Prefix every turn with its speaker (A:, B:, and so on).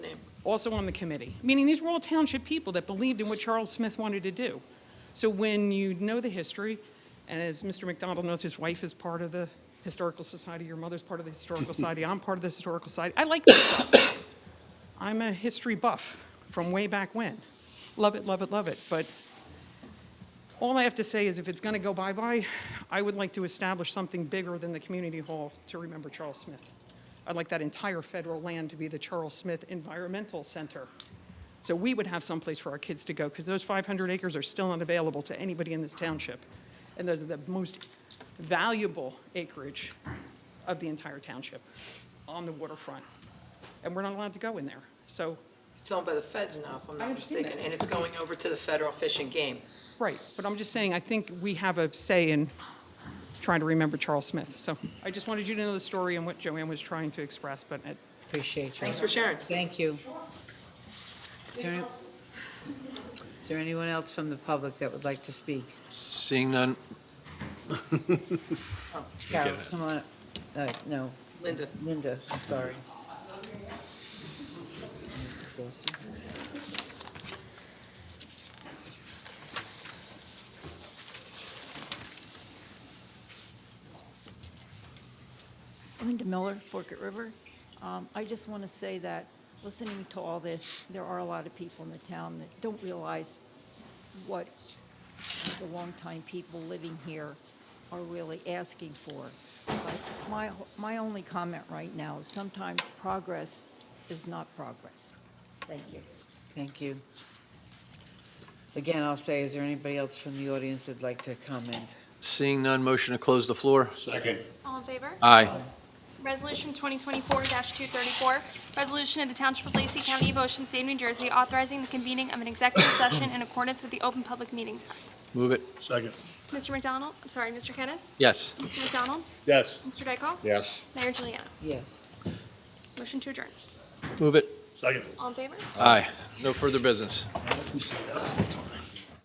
A: also on the committee. Meaning, these were all township people that believed in what Charles Smith wanted to do. So when you know the history, and as Mr. McDonald knows, his wife is part of the Historical Society, your mother's part of the Historical Society, I'm part of the Historical Society. I like this stuff. I'm a history buff from way back when. Love it, love it, love it. But all I have to say is if it's going to go bye-bye, I would like to establish something bigger than the community hall to remember Charles Smith. I'd like that entire federal land to be the Charles Smith Environmental Center. So we would have someplace for our kids to go because those 500 acres are still unavailable to anybody in this township. And those are the most valuable acreage of the entire township on the waterfront. And we're not allowed to go in there. So
B: It's owned by the feds now, if I'm
A: I
B: not
A: understand
B: mistaken,
A: that.
B: and it's going over to the Federal Fish and Game.
A: Right, but I'm just saying, I think we have a say in trying to remember Charles Smith. So I just wanted you to know the story and what Joanne was trying to express, but it-
C: Appreciate you.
B: Thanks for sharing.
C: Thank you. Is there any- is there anyone else from the public that would like to speak?
D: Seeing none,
C: Carol, come on, up. Uh, no,
B: Linda,
C: Linda, I'm sorry.
E: Linda Miller, Forkett River. Um, I just want to say that, listening to all this, there are a lot of people in the town that don't realize what the longtime people living here are really asking for. But My, my only comment right now is sometimes progress is not progress. Thank you.
C: Thank you. Again, I'll say, is there anybody else from the audience that'd like to comment?
D: seeing none, motion to close the floor?
F: Second.
G: All in favor?
D: Aye.
G: Resolution 2024-234, resolution of the Township of Lacey County of Ocean State of New Jersey authorizing the convening of an executive session in accordance with the Open Public Meetings Act.
D: Move it.
F: Second.
G: Mr. McDonald, I'm sorry, Mr. Kennis?
D: Yes.
G: Mr. McDonald?
F: Yes.
G: Mr. Dykoff?
F: Yes.
G: Mayor Juliana?
C: Yes.
G: Motion to adjourn.
D: Move it.
F: Second.
G: All in favor?
D: Aye. No further business.